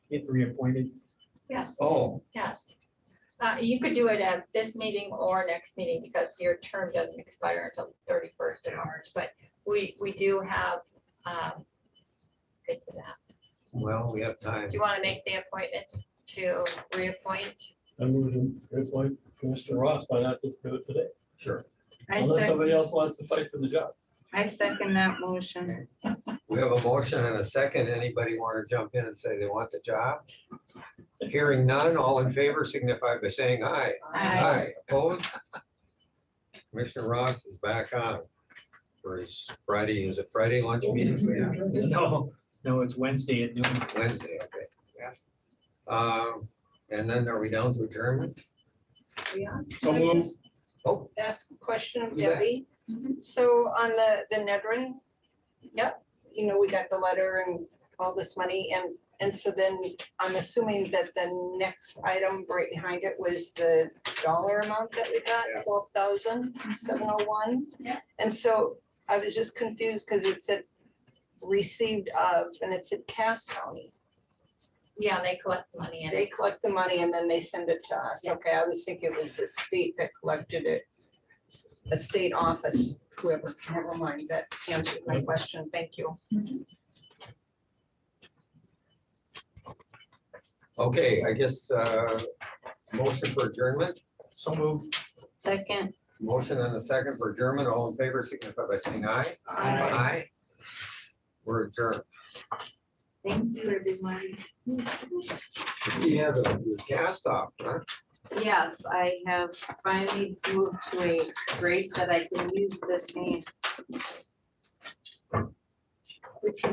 if reappointed? Yes, Oh, yes. Uh, you could do it at this meeting or next meeting because your term doesn't expire until the thirty-first of March, but we, we do have, um, good for that. Well, we have time. Do you want to make the appointment to reappoint? I moved to reappoint Commissioner Ross, why not just do it today? Sure. I Unless second, somebody else wants to fight for the job. I second that motion. We have a motion and a second. Anybody want to jump in and say they want the job? Hearing none, all in favor signify by saying aye. Aye. Opposed? Commissioner Ross is back on for his Friday, is it Friday lunch meeting? no, no, it's Wednesday at noon. Wednesday, okay. Um, And then are we down to adjournment? So move. Oh, ask a question of You bet. Debbie. So on the, the Nedrin. Yep, you know, we got the letter and all this money and, and so then I'm assuming that the next item right behind it was the dollar amount that we got, Yeah. twelve thousand seven oh one. Yeah. And so I was just confused because it said received of and it said Cass County. Yeah, they collect money and They collect the money and then they send it to us. Okay, I was thinking it was the state that collected it. A state office, whoever, never mind, that answered my question. Thank you. okay, I guess, uh, motion for adjournment, So move. Second. motion and a second for adjournment, all in favor signify by saying aye. Aye. We're adjourned. Thank you, everyone. We have a cast off, huh? Yes, I have finally moved to a grade that I can use this name. Which